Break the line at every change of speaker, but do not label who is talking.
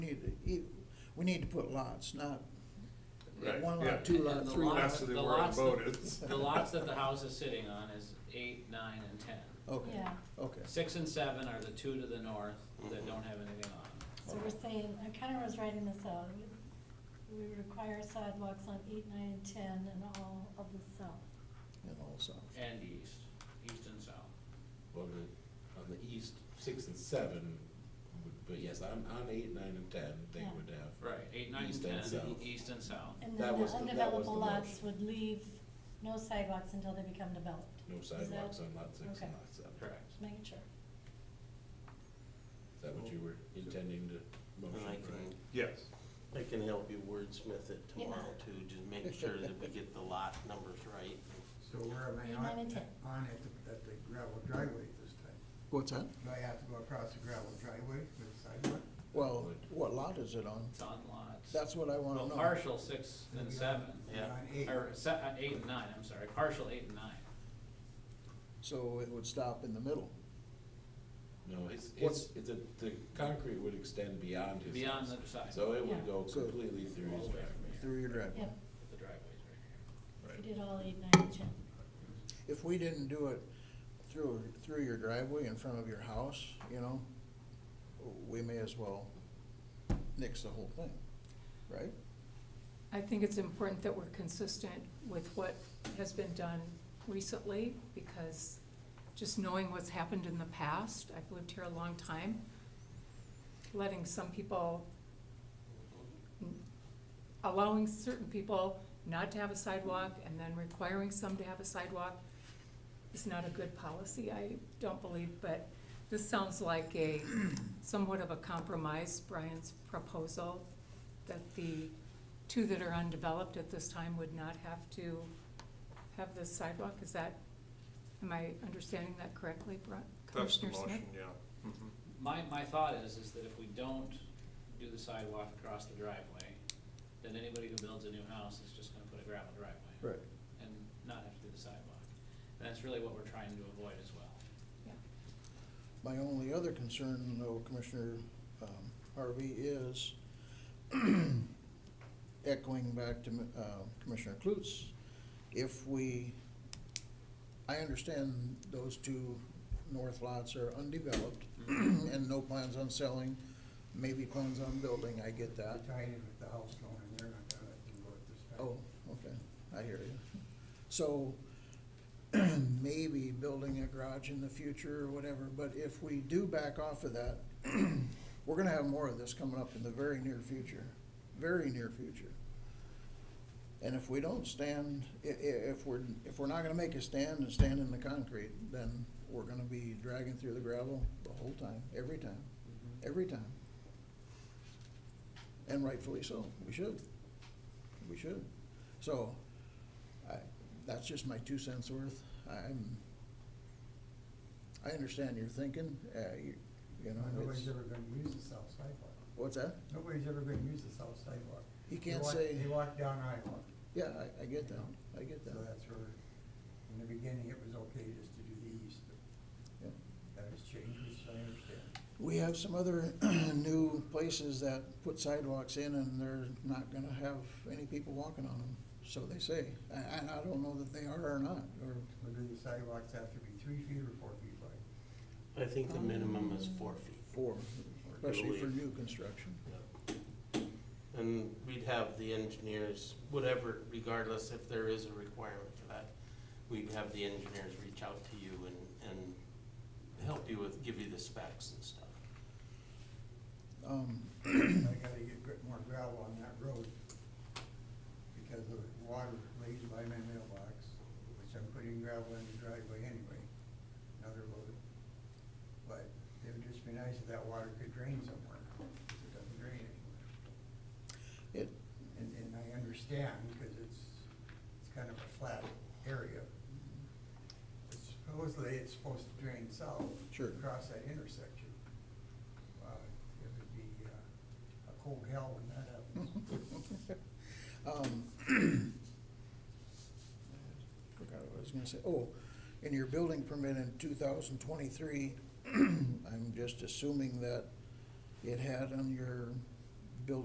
we need to put lots, not
Right,
one
yeah.
lot, two lot,
And the
three
lot-
lot.
That's the
the
word
lots that-
voted.
The lots that the house is sitting on is eight, nine, and ten.
Okay,
Yeah,
okay.
Six and seven are the two to the north that don't have anything on.
so we're saying, I kind of was writing this out, we- we require sidewalks on eight, nine, and ten and all of the south.
And also,
And east, east and south.
Well, the, on the east, six and seven, would- but yes, on, on eight, nine, and ten, they
Yeah.
would have.
Right, eight, nine,
East
ten,
and south.
east and south.
And
That
then the
was the- that was the
undeveloped lots
motion.
would leave no sidewalks until they become developed,
No sidewalks on lot six
okay.
and lot seven.
Correct.
just making sure.
Is that what you were intending to
And I
motion, right?
can,
Yes.
I can help you wordsmith it
Yeah.
tomorrow too, just make sure that we get the lot numbers right.
So where am I
Nine
on,
and ten.
on at the, at the gravel driveway this time?
what's that?
Do I have to go across the gravel driveway for the sidewalk?
Well, what lot is it on?
It's on lots.
That's what I wanna
Well,
know.
partial six and seven,
Yeah.
On eight,
or se- uh, eight and nine, I'm sorry, partial eight and nine.
So it would stop in the middle.
No, it's,
What's-
it's, it's a, the concrete would extend beyond his.
Beyond
house.
the side.
So it
Yeah.
would go
So-
completely through his driveway.
through your driveway.
Yeah,
The driveway's right
we did all eight, nine, and ten.
If we didn't do it through, through your driveway in front of your house, you know, we may as well nix the whole thing, right?
I think it's important that we're consistent with what has been done recently, because just knowing what's happened in the past, I've lived here a long time, letting some people, allowing certain people not to have a sidewalk and then requiring some to have a sidewalk is not a good policy, I don't believe, but this sounds like a somewhat of a compromise, Brian's proposal, that the two that are undeveloped at this time would not have to have the sidewalk, is that, am I understanding that correctly, Bri-
That's the
Commissioner Smith?
motion, yeah. Mhm.
My, my thought is, is that if we don't do the sidewalk across the driveway, then anybody who builds a new house is just gonna put a gravel driveway.
Right.
And not have to do the sidewalk. And that's really what we're trying to avoid as well.
Yeah.
My only other concern, though, Commissioner um, Harvey, is echoing back to uh, Commissioner Klutz, if we, I understand those two north lots are undeveloped and no plans on selling, maybe plans on building, I get
I
that.
tied in with the house loan and they're not gonna let you go at this time.
Oh, okay, I hear you. So maybe building a garage in the future or whatever, but if we do back off of that, we're gonna have more of this coming up in the very near future, very near future. And if we don't stand, i- i- if we're, if we're not gonna make a stand and stand in the concrete, then we're gonna be dragging through the gravel the whole time, every time, every time. And rightfully so, we should. We should. So, I, that's just my two cents worth. I'm, I understand your thinking, uh, you, you know, it's,
Nobody's ever gonna use the south sidewalk.
what's that?
Nobody's ever gonna use the south sidewalk.
He
They
can't
walk-
say,
They walk down Iowa,
yeah, I, I get that, I get
so
that.
that's where, in the beginning, it was okay just to do the east,
Yeah.
but that has changed, so I understand.
We have some other new places that put sidewalks in and they're not gonna have any people walking on them, so they say. I- And I don't know that they are or not, or,
Or do the sidewalks have to be three feet or four feet
I
wide?
think the minimum is four feet.
for,
I
especially for
believe.
new construction.
And we'd have the engineers, whatever, regardless if there is a requirement for that, we'd have the engineers reach out to you and, and help you with, give you the specs and stuff.
Um,
I gotta get gr- more gravel on that road because of the water lays by my mailbox, which I'm putting gravel in the driveway anyway, another road. But it would just be nice if that water could drain somewhere, 'cause it doesn't drain anywhere.
It,
And, and I understand, because it's, it's kind of a flat area. But Supposedly, it's supposed to drain south.
Sure.
Across that intersection. Uh, It would be uh, a cold hell when that happens.
Um, Forgot what I was gonna say, oh, in your building permit in two thousand twenty-three, I'm just assuming that it had on your